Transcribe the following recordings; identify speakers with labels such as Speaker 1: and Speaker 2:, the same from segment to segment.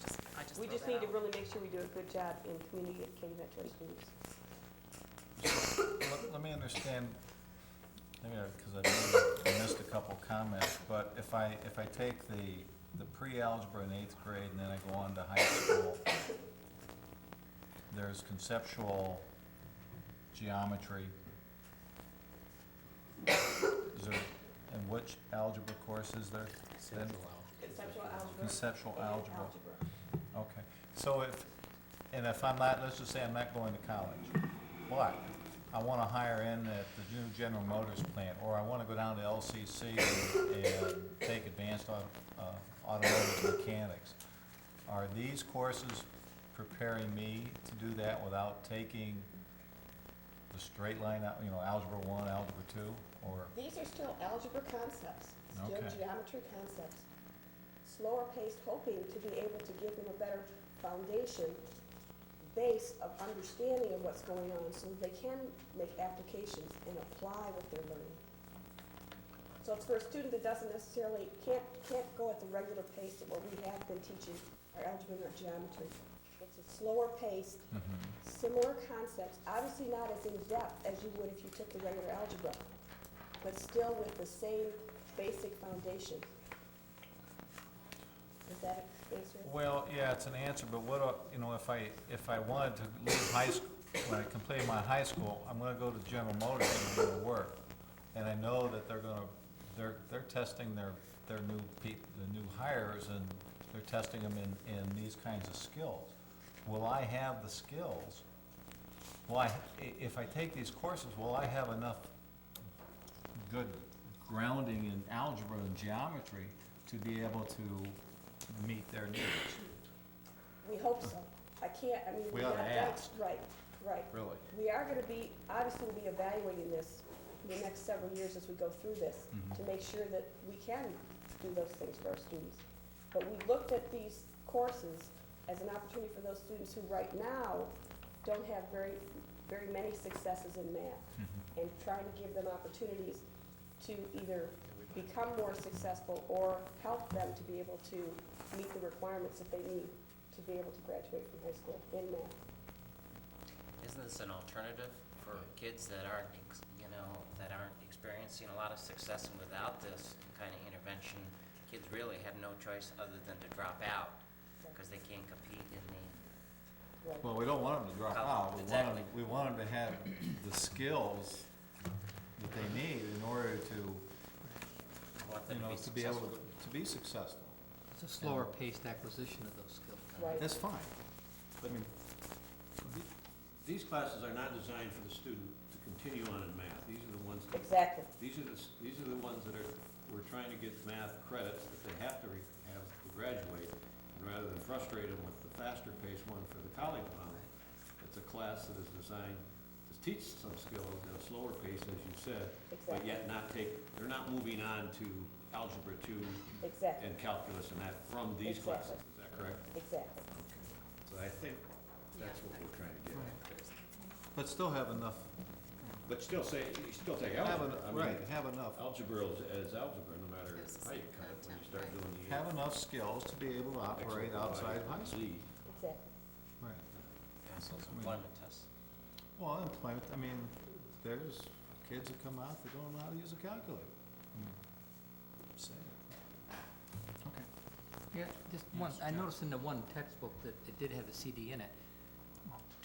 Speaker 1: just
Speaker 2: We
Speaker 1: throw
Speaker 2: just
Speaker 1: that
Speaker 2: need to
Speaker 1: out.
Speaker 2: really make sure we do a good job in communicating that to our students.
Speaker 3: Let- Let me understand, maybe, because I missed- I missed a couple comments, but if I, if I take the, the pre-algebra in eighth grade and then I go on to high school, there's conceptual geometry. Is there, and which algebra course is there? Then
Speaker 2: Conceptual algebra.
Speaker 3: Conceptual algebra, okay. So if, and if I'm not, let's just say I'm not going to college, but I wanna hire in at the new General Motors plant, or I wanna go down to LCC and- and take advanced au- uh, automotive mechanics. Are these courses preparing me to do that without taking the straight line, al- you know, algebra one, algebra two, or?
Speaker 1: These are still algebra concepts, still
Speaker 3: Okay.
Speaker 1: geometry concepts. Slower paced, hoping to be able to give them a better foundation, base of understanding of what's going on, so they can make applications and apply what they're learning. So it's for a student that doesn't necessarily, can't, can't go at the regular pace of what we have been teaching our algebra and our geometry. It's a slower paced, similar concepts, obviously not as in-depth as you would if you took the regular algebra, but still with the same basic foundation. Is that an answer?
Speaker 3: Well, yeah, it's an answer, but what, a- you know, if I, if I wanted to leave high school, when I complete my high school, I'm gonna go to General Motors and do the work. And I know that they're gonna, they're, they're testing their, their new peop, the new hires, and they're testing them in, in these kinds of skills. Will I have the skills? Will I, i- if I take these courses, will I have enough good grounding in algebra and geometry to be able to meet their needs?
Speaker 1: We hope so. I can't, I mean,
Speaker 3: We
Speaker 1: we're
Speaker 3: ought
Speaker 1: not
Speaker 3: to
Speaker 1: done.
Speaker 3: ask.
Speaker 1: Right, right.
Speaker 3: Really?
Speaker 1: We are gonna be, obviously, we'll be evaluating this the next several years as we go through this,
Speaker 3: Mm-hmm.
Speaker 1: to make sure that we can do those things for our students. But we looked at these courses as an opportunity for those students who right now don't have very, very many successes in math,
Speaker 3: Mm-hmm.
Speaker 1: and trying to give them opportunities to either become more successful or help them to be able to meet the requirements that they need to be able to graduate from high school in math.
Speaker 4: Isn't this an alternative for kids that aren't, ex- you know, that aren't experiencing a lot of success and without this kind of intervention, kids really have no choice other than to drop out because they can't compete in the,
Speaker 1: Right.
Speaker 3: Well, we don't want them to drop
Speaker 4: Oh,
Speaker 3: out, we want them,
Speaker 4: exactly.
Speaker 3: we want them to have the skills that they need in order to,
Speaker 4: want
Speaker 3: you
Speaker 4: them
Speaker 3: know, to
Speaker 4: to
Speaker 3: be
Speaker 4: be
Speaker 3: able
Speaker 4: successful.
Speaker 3: to, to be successful.
Speaker 5: It's a slower paced acquisition of those skills.
Speaker 1: Right.
Speaker 3: That's fine. I mean,
Speaker 6: These classes are not designed for the student to continue on in math. These are the ones, that-
Speaker 1: Exactly,
Speaker 6: these are the, s- these are the ones that are, we're trying to get math credits that they have to re- have to graduate. And rather than frustrate them with the faster paced one for the college bound, it's a class that is designed to teach some skills at a slower pace, as you said,
Speaker 1: exactly,
Speaker 6: but yet not take, they're not moving on to algebra two
Speaker 1: exactly,
Speaker 6: and calculus and that from these classes.
Speaker 1: Exactly.
Speaker 6: Is that correct?
Speaker 1: exactly.
Speaker 6: So I think that's what we're trying to get at.
Speaker 3: but still have enough,
Speaker 6: But still say, you still take
Speaker 3: have,
Speaker 6: algebra, I
Speaker 3: en-
Speaker 6: mean, oh,
Speaker 3: right, have enough,
Speaker 6: algebra is, is algebra, no matter how you cut it, when you start doing the.
Speaker 3: have enough skills to be able to operate outside of high school.
Speaker 6: Z.
Speaker 1: Exactly.
Speaker 3: Right.
Speaker 4: Pass those employment tests.
Speaker 3: Well, employment, I mean, there's kids that come out that don't know how to use a calculator. Hmm. I mean, Say it. Okay.
Speaker 5: Yeah, just one,
Speaker 3: Yes,
Speaker 5: I
Speaker 3: yeah.
Speaker 5: noticed in the one textbook that it did have a CD in it.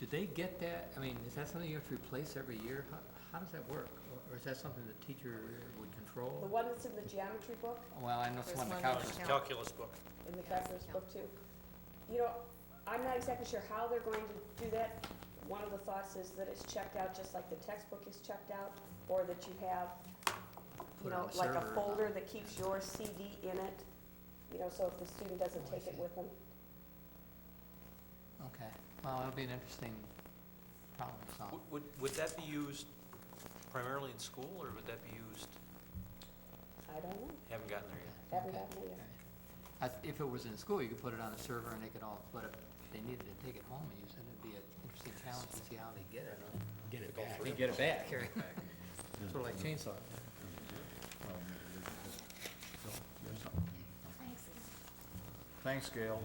Speaker 5: Do they get that? I mean, is that something you have to replace every year? How, how does that work? Or- Or is that something the teacher would
Speaker 1: The
Speaker 5: control?
Speaker 1: one that's in the geometry book,
Speaker 5: Well, I know it's
Speaker 7: There's
Speaker 5: one of the
Speaker 7: one more
Speaker 5: calculus.
Speaker 7: count.
Speaker 8: calculus book.
Speaker 1: in the
Speaker 7: Yeah,
Speaker 1: calculus
Speaker 7: yeah.
Speaker 1: book too. You know, I'm not exactly sure how they're going to do that. One of the thoughts is that it's checked out just like the textbook is checked out, or that you have, you
Speaker 5: Put it
Speaker 1: know,
Speaker 5: on the
Speaker 1: like a
Speaker 5: server.
Speaker 1: folder that keeps your CD in it. You know, so if the student doesn't
Speaker 5: Oh, I
Speaker 1: take it
Speaker 5: see.
Speaker 1: with them.
Speaker 5: Okay, well, it'll be an interesting problem to solve.
Speaker 8: Would- Would, would that be used primarily in school, or would that be used,
Speaker 1: I don't know,
Speaker 8: haven't gotten there yet?
Speaker 1: haven't
Speaker 5: Okay.
Speaker 1: gotten it yet.
Speaker 5: I th- If it was in school, you could put it on a server and they could all, but if they needed to take it home and use it, it'd be an interesting challenge to see how they get it. Get it back. They get it back. Sort of like chainsaw.
Speaker 3: Thanks, Gail.